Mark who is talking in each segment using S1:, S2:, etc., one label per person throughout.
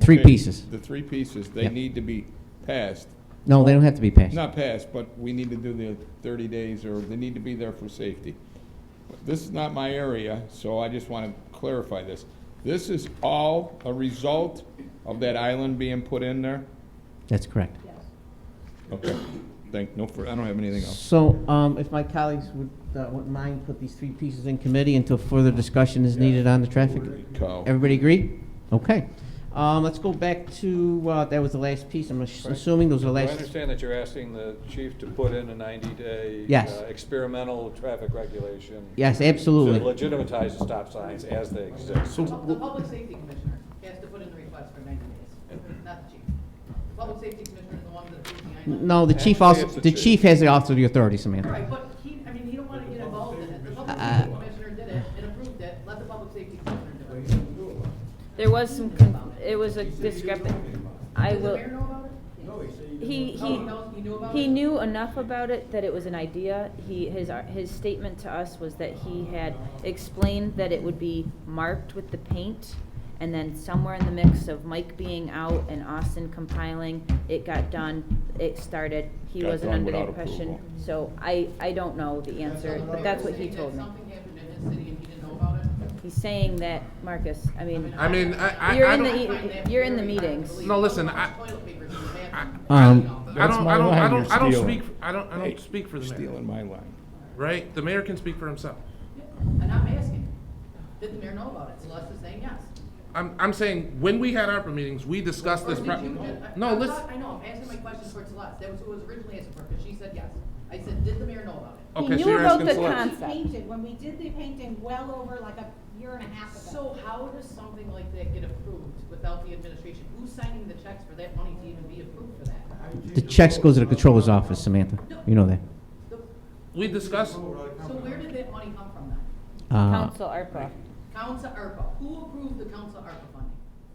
S1: three
S2: they-
S1: pieces.
S2: The three pieces, they
S1: Yep.
S2: need to be passed,
S1: No, they don't have to be passed.
S2: not passed, but we need to do the thirty days, or they need to be there for safety. This is not my area, so I just want to clarify this. This is all a result of that island being put in there?
S1: That's correct.
S2: Okay, thank, no, fur- I don't have anything else.
S3: So, um, if my colleagues would, uh, wouldn't mind, put these three pieces in committee until further discussion is needed on the traffic.
S2: Kyle.
S3: Everybody agree? Okay. Um, let's go back to, uh, that was the last piece, I'm ass- assuming those are the
S4: I
S3: last.
S4: understand that you're asking the chief to put in a 90-day.
S3: Yes.
S4: uh, Experimental traffic regulation.
S3: Yes,
S4: To
S3: absolutely.
S4: legitimize the stop signs as they exist.
S5: The pub- the public safety commissioner has to put in the request for ninety days, not the chief. The public safety commissioner is the one that approves the I nine.
S3: No, the chief also,
S4: Actually, it's
S3: the
S4: the
S3: chief
S4: chief.
S3: has the also the authority,
S5: All
S1: Samantha.
S5: right, but he, I mean, he don't wanna get involved in it. The public
S3: Uh,
S5: safety commissioner did it and approved it, let the public safety commissioner do it.
S6: There was some, con- it was a discrepancy. I
S5: Does the
S6: will,
S5: mayor know about it?
S6: he,
S5: Oh,
S6: he,
S5: he knows, he knew about it?
S6: he knew enough about it that it was an idea. He, his, his statement to us was that he had explained that it would be marked with the paint. And then somewhere in the mix of Mike being out and Austin compiling, it got done, it started. He
S2: Got
S6: wasn't
S2: done
S6: under the
S2: without
S6: impression.
S2: approval.
S6: So I, I don't know the answer, but that's what he
S5: Saying that
S6: told me.
S5: Something happened in his city and he didn't know about it?
S6: He's saying that, Marcus, I mean,
S7: I mean, I,
S6: you're
S7: I, I
S6: in
S7: don't.
S6: the, e- you're in the meetings.
S7: No, listen, I-
S5: Toilet paper in the bathroom.
S3: Um,
S7: I don't, I don't, I don't, I don't speak, I don't, I
S2: Hey,
S7: don't speak for the mayor,
S2: Stealing my line.
S7: right? The mayor can speak for himself.
S5: And I'm asking, did the mayor know about it? Celeste is saying yes.
S7: I'm, I'm saying, when we had ARPA meetings, we discussed this.
S5: Or
S7: pro-
S5: did you just- I-
S7: No,
S5: I'm
S7: listen,
S5: not- I know, I'm asking my question for Celeste, that was who was originally asked for, because she said yes. I said, did the mayor know about it?
S7: okay,
S6: knew
S7: so you're
S6: about
S7: asking
S6: the
S7: Celeste.
S6: con-
S8: We painted, when we did the painting well over like a year and a half ago.
S5: So how does something like that get approved without the administration? Who's signing the checks for that money to even be approved for that?
S1: The checks goes to the controller's office, Samantha. You know that.
S5: The-
S7: We discussed,
S5: So where did that money come from then?
S3: Uh-huh.
S1: Uh,
S6: Council ARPA.
S5: Council ARPA, who approved the council ARPA funding?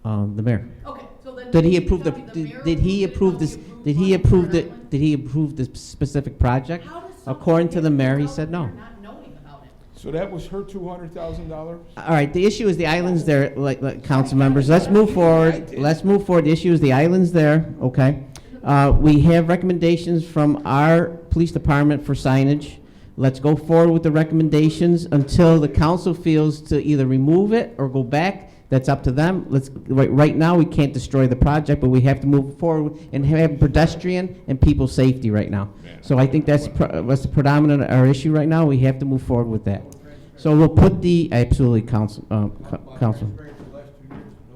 S1: um, the mayor.
S5: Okay, so then.
S3: Did he
S5: you
S3: approve the,
S5: tell me mayor
S3: did did he approve
S5: approved it,
S3: this,
S5: nobody approved
S3: did he
S5: funding for
S3: approve the,
S5: an island?
S3: did he approve the specific project?
S5: How does something
S3: According to
S5: get
S3: the mayor, he
S5: approved
S3: said no.
S5: without not knowing about it?
S2: So that was her two hundred thousand dollars?
S3: All right, the issue is the island's there, like, like, council members, let's move forward, let's move forward, the issue is the island's there, okay? Uh, we have recommendations from our police department for signage. Let's go forward with the recommendations until the council feels to either remove it or go back, that's up to them. Let's, right, right now, we can't destroy the project, but we have to move forward and have pedestrian and people safety right now. So I think that's, pro- that's the predominant, our issue right now, we have to move forward with that. So we'll put the, absolutely, council, um, co- council.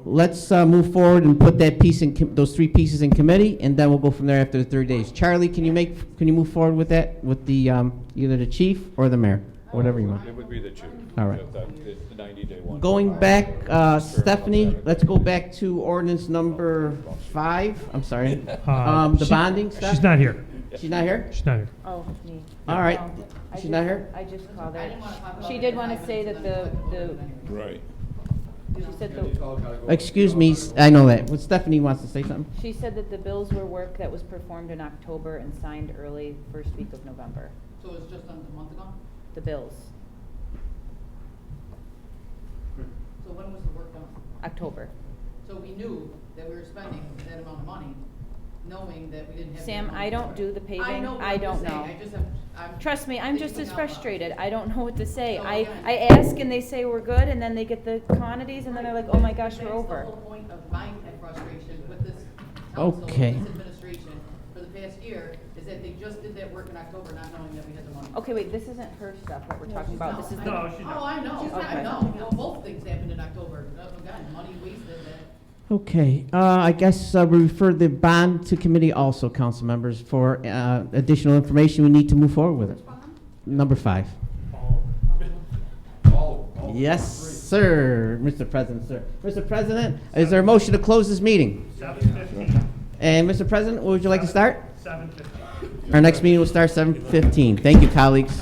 S3: Let's, uh, move forward and put that piece in, com- those three pieces in committee, and then we'll go from there after the three days. Charlie, can you make, can you move forward with that, with the, um, either the chief or the mayor, whatever you want?
S4: It would be the chief.
S3: All right.
S4: The 90-day one.
S3: Going back, uh, Stephanie, let's go back to ordinance number five, I'm sorry. Um, the
S9: Uh, she-
S3: bonding stuff?
S9: She's not here.
S3: She's not here?
S9: She's not here.
S6: Oh, me.
S3: All right.
S6: No, I
S3: She's
S6: just-
S3: not here?
S6: I just called
S5: I
S6: her.
S5: didn't wanna talk about
S6: She
S5: it
S6: did
S5: for
S6: want to
S5: five
S6: say that
S5: minutes,
S6: the,
S5: and then I
S6: the,
S5: clicked on it anyway.
S2: Right.
S6: she said the,
S3: Excuse me, s- I know that, Well, Stephanie wants to say something?
S6: she said that the bills were work that was performed in October and signed early first week of November.
S5: So it's just under a month ago?
S6: The bills,
S5: So when was the work done?
S6: October.
S5: So we knew that we were spending that amount of money, knowing that we didn't have. the
S6: Sam,
S5: amount
S6: I
S5: of
S6: don't
S5: work.
S6: do the
S5: I
S6: paving.
S5: know, but
S6: I
S5: I'm just
S6: don't
S5: saying,
S6: know.
S5: I just have, I'm.
S6: Trust me, I'm just
S5: thinking
S6: as
S5: out loud.
S6: frustrated. I don't know what to say.
S5: So
S6: I,
S5: again-
S6: I ask and they say we're good and then they get the quantities and then they're like, oh my gosh, we're over.
S5: That's the whole point of my frustration with this council, this
S3: Okay.
S5: administration, for the past year, is that they just did that work in October, not knowing that we had the money.
S6: Okay, wait, this isn't her stuff that we're talking about. This is the
S9: No, she's
S5: Oh,
S9: not.
S5: I know, I
S6: Okay.
S5: know, well, both things happened in October, oh, God, money wasted that.
S3: Okay, uh, I guess uh, we refer the bond to committee also, council members, for uh, additional information. We need to move forward with it. Number five. Yes, sir, Mr. President, sir. Mr. President, is there a motion to close this meeting?
S9: Seven fifty.
S3: And Mr. President, would you like to start?
S9: Seven fifty.
S3: Our next meeting will start 7:15. Thank you, colleagues.